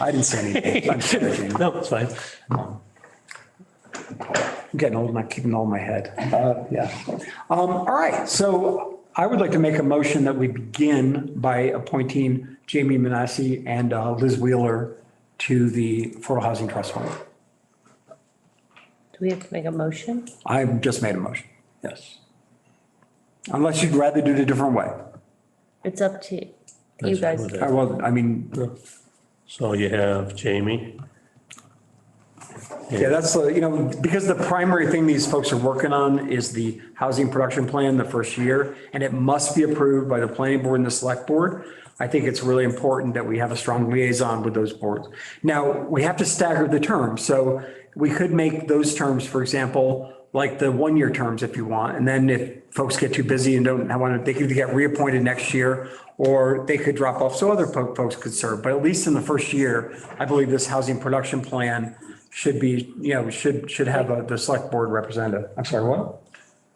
I didn't say anything. I'm sorry, Jamie. No, it's fine. I'm getting old and I'm keeping all in my head. Uh, Yeah. Um, All right, so I would like to make a motion that we begin by appointing Jamie Manassi and uh, Liz Wheeler to the Affordable Housing Trust Fund. Do we have to make a motion? I've just made a motion, yes. Unless you'd rather do it a different way. It's up to you That's fine guys. with I it. was, I mean, So you have Jamie. yeah, that's, uh, you know, because the primary thing these folks are working on is the housing production plan the first year, and it must be approved by the planning board and the select board. I think it's really important that we have a strong liaison with those boards. Now, we have to stagger the terms, so we could make those terms, for example, like the one-year terms if you want, and then if folks get too busy and don't want to, they could get reappointed next year, or they could drop off, so other po- folks could serve, but at least in the first year, I believe this housing production plan should be, you know, should, should have a- the select board representative. I'm sorry, what?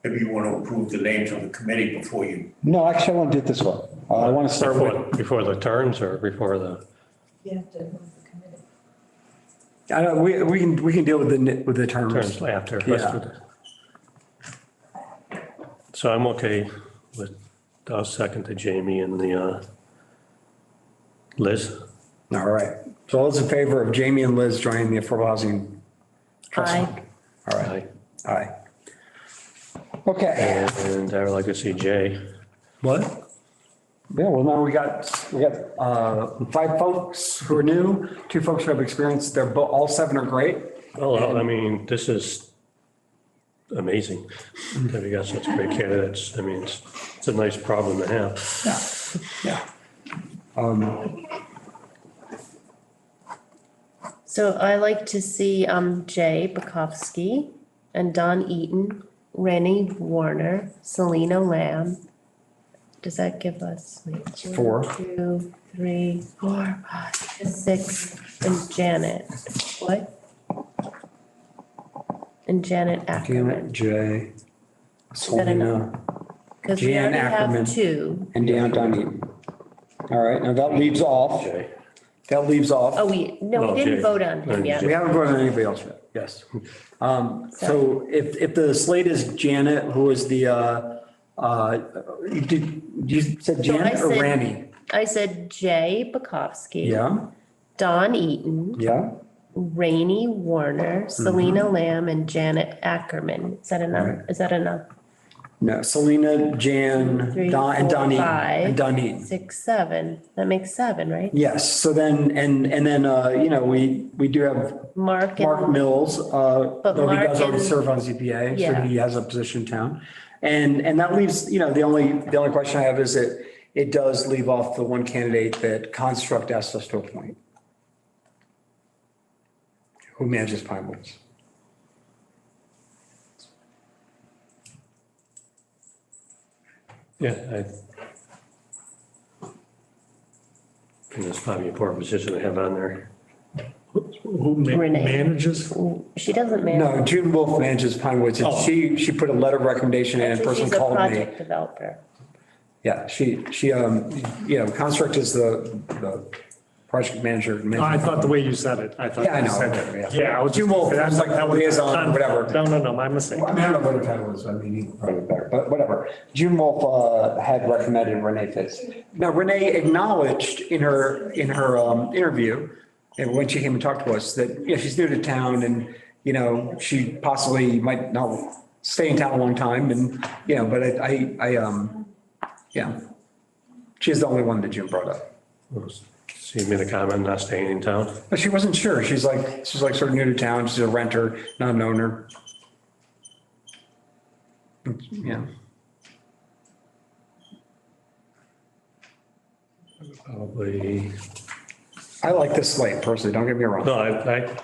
Maybe you want to approve the names of the committee before you, No, actually, I want to do it this way. Uh, I want to start Before, with, before the terms or before the, You have to move the committee. I don't, we, we can, we can deal with the, ni- with the terms. terms after. Let's do Yeah. that. So I'm okay with, I'll second to Jamie and the, uh, Liz. All right. So all those in favor of Jamie and Liz joining the Affordable Housing Trust Aye. Fund? All right, Aye. aye. Okay. And I would like to see Jay. What? Yeah, well, now we got, we got uh, five folks who are new, two folks who have experience. They're, bo- all seven are great. Well, I mean, this is amazing that we got such great candidates. I mean, it's, it's a nice problem to have. Yeah. So I like to see um Jay Bukowski and Don Eaton, Rennie Warner, Selena Lamb. Does that give us? wait, one, Four. Two, three, four, five, six, and Janet, what? And Janet Janet, Ackerman, Jay, that enough? Selena, because we Jan already Ackerman. have two. and Dan Dunne. All right, now that leaves off, Jay. that leaves Oh, off. we, no, Oh, we Jay. didn't vote on And him yet. We haven't voted on anybody else yet, yes. Um, So if, if the slate is Janet, who is the, uh, uh, you did, you said So I Janet or said- Randy? I said Jay Bukowski. Yeah, Don Eaton. yeah. Rainey Warner, Mm-hmm. Selena Lamb, and Janet Ackerman. Is that enough? Is that enough? No, Selena, Jan, Three, Don, and four, Donnie, five. and Donnie. Six, seven. That makes seven, right? Yes, so then, and, and then, uh, you know, we, we do have Mark Mark and, Mills, uh, But though he Mark does already and- serve on ZBA, so Yeah. he has a position in town. And, and that leaves, you know, the only, the only question I have is that it does leave off the one candidate that Construct asked us to appoint. Who manages Pine Woods. Yeah, I. And it's probably a poor position to have on there. Who ma- Renee. manages? she doesn't manage. No, June Wolf manages Pine Woods, and Oh. she, she put a letter of recommendation in, and a Actually, person she's a called me. project developer. Yeah, she, she, um, you know, Construct is the, the project manager. I thought the way you said it, I thought Yeah, I you know. said that. Yeah. Yeah, I was You just. won't- I was like, that was- Liaison, whatever. No, no, no, my mistake. I mean, I don't know what the title was, I mean, you probably better, but whatever. June Wolf uh, had recommended Renee Fitz. Now Renee acknowledged in her, in her um, interview, and when she came and talked to us, that, you know, she's new to town and, you know, she possibly might not stay in town a long time and, you know, but I, I, I, um, yeah. She's the only one that Jim brought up. See me the comment, not staying in town. But she wasn't sure. She's like, she's like sort of new to town. She's a renter, not an owner. Yeah. Probably, I like this slate personally, don't get me wrong. no, I, I,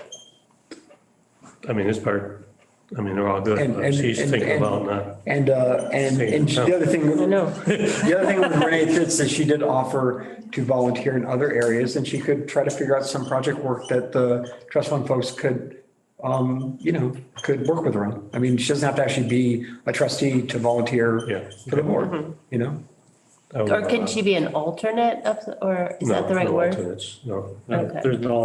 I mean, this part, I mean, they're all good, And- but and- she's and- thinking and- about not. And, uh, and, and the other thing, I the know. other thing with Renee Fitz is she did offer to volunteer in other areas and she could try to figure out some project work that the trust fund folks could, um, you know, could work with her on. I mean, she doesn't have to actually be a trustee to volunteer Yeah. for the Mm-hmm. board, you know? I would Or can not- she be an alternate of, or is No, that the right no word? alternates, No. Okay. There's no